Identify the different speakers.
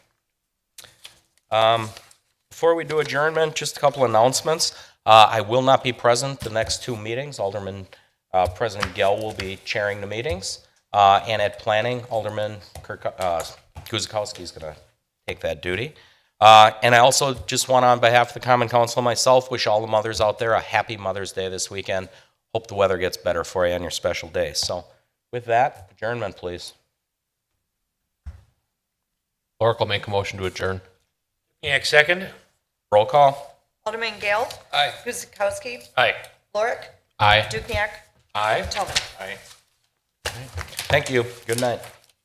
Speaker 1: Um, Before we do adjournment, just a couple announcements. Uh, I will not be present the next two meetings. Alderman, uh, President Gell will be chairing the meetings. Uh, And at planning, Alderman Kirk, uh, Guzekowski is going to take that duty. Uh, And I also just want, on behalf of the Common Council and myself, wish all the mothers out there a happy Mother's Day this weekend. Hope the weather gets better for you on your special day. So with that, adjournment, please.
Speaker 2: Oracle make a motion to adjourn.
Speaker 3: Dukenyak, second.
Speaker 1: Roll call.
Speaker 4: Alderman Gale.
Speaker 3: Aye.
Speaker 4: Guzekowski.
Speaker 3: Aye.
Speaker 4: Lorick.
Speaker 2: Aye.
Speaker 4: Dukenyak.
Speaker 3: Aye.
Speaker 4: Talbot.
Speaker 3: Aye.
Speaker 1: Thank you. Good night.